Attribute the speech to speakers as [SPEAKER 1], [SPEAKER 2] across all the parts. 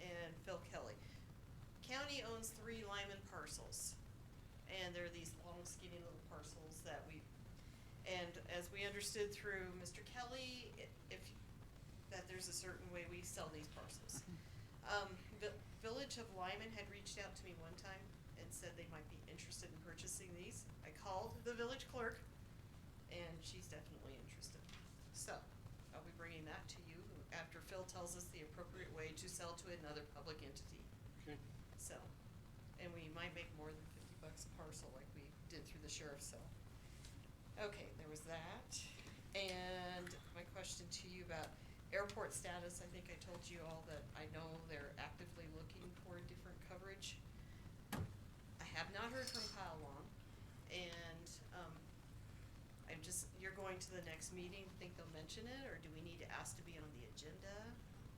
[SPEAKER 1] and Phil Kelly. County owns three Lyman parcels, and they're these long skinny little parcels that we, and as we understood through Mr. Kelly, i- if, that there's a certain way we sell these parcels.
[SPEAKER 2] Mm-hmm.
[SPEAKER 1] Um, the Village of Lyman had reached out to me one time and said they might be interested in purchasing these. I called the village clerk, and she's definitely interested. So, I'll be bringing that to you after Phil tells us the appropriate way to sell to another public entity.
[SPEAKER 3] Okay,
[SPEAKER 1] So, and we might make more than fifty bucks a parcel like we did through the sheriff's sale. Okay, there was that. And my question to you about airport status, I think I told you all that I know they're actively looking for different coverage. I have not heard from Kyle Long and, um, I'm just, you're going to the next meeting, think they'll mention it, or do we need to ask to be on the agenda?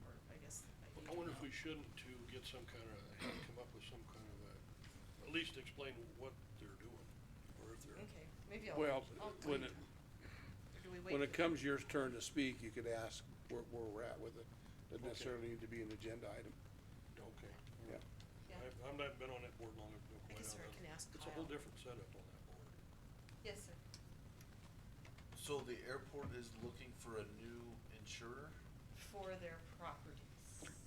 [SPEAKER 1] Or I guess I need
[SPEAKER 3] I
[SPEAKER 1] to
[SPEAKER 3] wonder if
[SPEAKER 1] know.
[SPEAKER 3] we shouldn't to get some kind of, have to come up with some kind of a, at least explain what they're doing, or if they're.
[SPEAKER 1] Okay, maybe I'll.
[SPEAKER 4] Well,
[SPEAKER 1] I'll
[SPEAKER 4] when
[SPEAKER 1] tweet.
[SPEAKER 4] it,
[SPEAKER 1] Or do we wait
[SPEAKER 4] when it
[SPEAKER 1] for-
[SPEAKER 4] comes your turn to speak, you could ask where, where we're at with it. Doesn't
[SPEAKER 3] Okay.
[SPEAKER 4] necessarily need to be an agenda item.
[SPEAKER 3] Okay.
[SPEAKER 4] Yeah.
[SPEAKER 1] Yeah.
[SPEAKER 3] I've, I've not been on that board long, I've no
[SPEAKER 1] I
[SPEAKER 3] idea.
[SPEAKER 1] guess I can ask
[SPEAKER 3] It's a whole
[SPEAKER 1] Kyle.
[SPEAKER 3] different setup on that board.
[SPEAKER 1] Yes, sir.
[SPEAKER 5] So the airport is looking for a new insurer?
[SPEAKER 1] For their properties.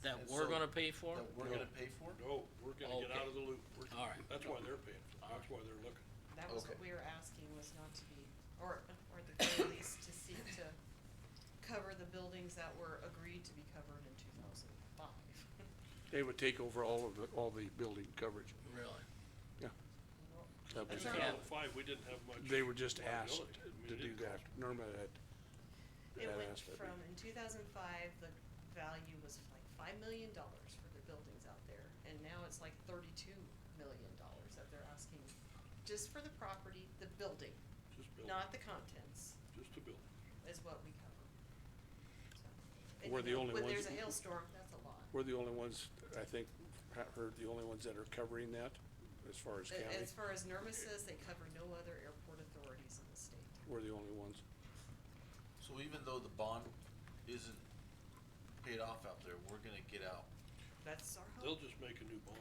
[SPEAKER 2] That
[SPEAKER 5] And
[SPEAKER 2] we're
[SPEAKER 5] so-
[SPEAKER 2] gonna pay for?
[SPEAKER 5] That we're
[SPEAKER 4] No.
[SPEAKER 5] gonna pay for?
[SPEAKER 3] No, we're gonna get out of the loop. We're-
[SPEAKER 2] All right.
[SPEAKER 3] That's why they're paying, for it.
[SPEAKER 2] All
[SPEAKER 3] that's
[SPEAKER 2] right.
[SPEAKER 3] why they're looking.
[SPEAKER 1] That was what
[SPEAKER 5] Okay.
[SPEAKER 1] we were asking was not to be, or, or at the very least to seek to cover the buildings that were agreed to be covered in two thousand five.
[SPEAKER 4] They would take over all of the, all the building coverage.
[SPEAKER 2] Really?
[SPEAKER 4] Yeah. That'd be
[SPEAKER 1] That's all
[SPEAKER 3] In
[SPEAKER 4] fine.
[SPEAKER 1] right.
[SPEAKER 3] Title Five, we didn't have much.
[SPEAKER 4] They were just asked
[SPEAKER 3] liability. I mean,
[SPEAKER 4] to
[SPEAKER 3] it
[SPEAKER 4] do
[SPEAKER 3] didn't
[SPEAKER 4] that.
[SPEAKER 3] cost-
[SPEAKER 4] Norma had,
[SPEAKER 1] It
[SPEAKER 4] had
[SPEAKER 1] went
[SPEAKER 4] asked that.
[SPEAKER 1] from, in two thousand five, the value was like five million dollars for their buildings out there, and now it's like thirty-two million dollars that they're asking, just for the property, the building,
[SPEAKER 3] Just build,
[SPEAKER 1] not the contents.
[SPEAKER 3] just to build.
[SPEAKER 1] is what we cover. So, and
[SPEAKER 4] We're
[SPEAKER 1] you
[SPEAKER 4] the
[SPEAKER 1] know,
[SPEAKER 4] only
[SPEAKER 1] When
[SPEAKER 4] ones
[SPEAKER 1] there's a
[SPEAKER 4] that-
[SPEAKER 1] hailstorm, that's a lot.
[SPEAKER 4] We're the only ones, I think, I heard the only ones that are covering that as far as
[SPEAKER 1] A-
[SPEAKER 4] county.
[SPEAKER 1] As far as NERMA says, they cover no other airport authorities in the state.
[SPEAKER 4] We're the only ones.
[SPEAKER 5] So even though the bond isn't paid off out there, we're gonna get out.
[SPEAKER 1] That's our
[SPEAKER 3] They'll
[SPEAKER 1] hope.
[SPEAKER 3] just make a new bond.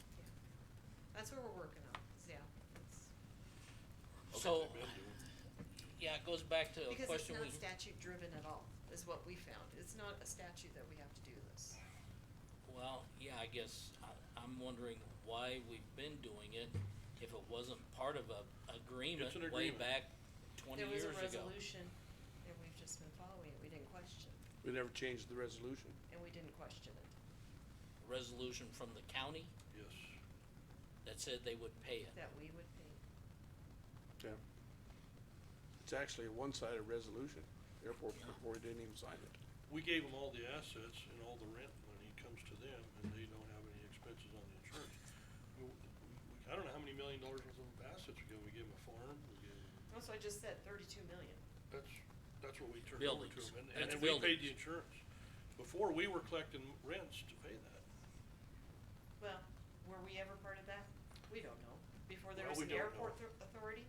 [SPEAKER 1] Yeah. That's what we're working on, is, yeah. it's-
[SPEAKER 2] So,
[SPEAKER 3] They've been doing.
[SPEAKER 2] yeah, it goes back to a
[SPEAKER 1] Because it's
[SPEAKER 2] question we,
[SPEAKER 1] not statute driven at all, is what we found. It's not a statute that we have to do this.
[SPEAKER 2] well, yeah, I guess, I, I'm wondering why we've been doing it if it wasn't part of a agreement
[SPEAKER 3] an
[SPEAKER 2] way
[SPEAKER 3] agreement.
[SPEAKER 2] back twenty years ago.
[SPEAKER 1] There was a resolution, and we've just been following it. We didn't question,
[SPEAKER 4] We never changed the resolution.
[SPEAKER 1] and we didn't question it.
[SPEAKER 2] Resolution from the county
[SPEAKER 3] Yes,
[SPEAKER 2] that said they would pay it.
[SPEAKER 1] That we would pay.
[SPEAKER 4] Yeah. It's actually a one-sided resolution. Airport Board didn't even sign it.
[SPEAKER 3] we gave them all the assets and all the rent money comes to them and they don't have any expenses on the insurance. We- we- I don't know how many million dollars worth of assets we gave 'em. We gave them a farm, we gave 'em-
[SPEAKER 1] That's why I just said thirty-two million.
[SPEAKER 3] That's, that's what we turned over to
[SPEAKER 2] Buildings.
[SPEAKER 3] them, and, and
[SPEAKER 2] That's
[SPEAKER 3] then we paid the
[SPEAKER 2] buildings.
[SPEAKER 3] insurance. Before, we were collecting rents to pay that.
[SPEAKER 1] Well, were we ever part of that? We don't know. Before there was
[SPEAKER 3] Well,
[SPEAKER 1] an
[SPEAKER 3] we don't
[SPEAKER 1] airport
[SPEAKER 3] know.
[SPEAKER 1] thor- authority?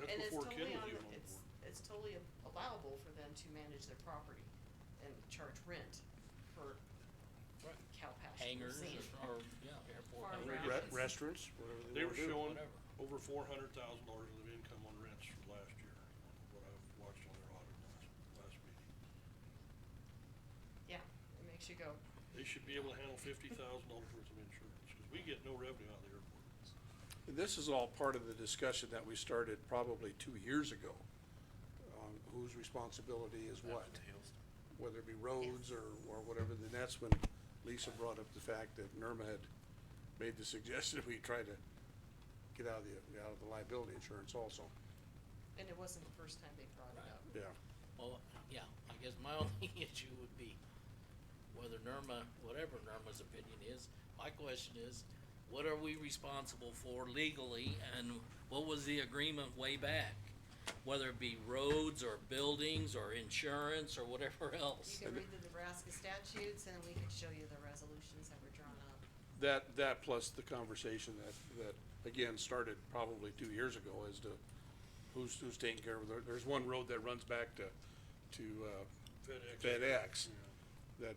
[SPEAKER 3] That's
[SPEAKER 1] and it's
[SPEAKER 3] before Ken
[SPEAKER 1] totally
[SPEAKER 3] was
[SPEAKER 1] on
[SPEAKER 3] even
[SPEAKER 1] the-
[SPEAKER 3] on
[SPEAKER 1] it's-
[SPEAKER 3] board.
[SPEAKER 1] It's totally a- allowable for them to manage their property and charge rent for
[SPEAKER 3] Right.
[SPEAKER 1] cow pastures.
[SPEAKER 2] Hangars
[SPEAKER 1] and-
[SPEAKER 2] or, yeah, airport
[SPEAKER 1] Farm grounds.
[SPEAKER 2] hangars.
[SPEAKER 4] Re-
[SPEAKER 1] Right.
[SPEAKER 4] Restaurants, whatever
[SPEAKER 3] They
[SPEAKER 4] they
[SPEAKER 3] were
[SPEAKER 4] wanna do.
[SPEAKER 3] showing
[SPEAKER 2] whatever.
[SPEAKER 3] over four hundred thousand dollars of income on rents for last year, what I've watched on their audit last, last meeting.
[SPEAKER 1] Yeah, it makes you go,
[SPEAKER 3] They should be able to handle fifty thousand dollars worth of insurance, cause we get no revenue out of the airport.
[SPEAKER 4] This is all part of the discussion that we started probably two years ago on whose responsibility is what,
[SPEAKER 5] After the hailstorm.
[SPEAKER 4] whether it be roads or, or whatever. Then that's when Lisa brought up the fact that Norma had made the suggestion we try to get out of the, out of the liability insurance also.
[SPEAKER 1] and it wasn't the first time they brought it
[SPEAKER 2] Right.
[SPEAKER 1] up.
[SPEAKER 4] Yeah.
[SPEAKER 2] Well, yeah, I guess my only issue would be whether NERMA, whatever NERMA's opinion is, my question is, what are we responsible for legally and what was the agreement way back? Whether it be roads or buildings or insurance or whatever
[SPEAKER 1] You
[SPEAKER 2] else.
[SPEAKER 1] can read the Nebraska statutes and we can show you the resolutions that were drawn up.
[SPEAKER 4] That, that plus the conversation that, that again started probably two years ago as to who's, who's taking care of, there, there's one road that runs back to, to, uh,
[SPEAKER 3] FedEx.
[SPEAKER 4] FedEx. That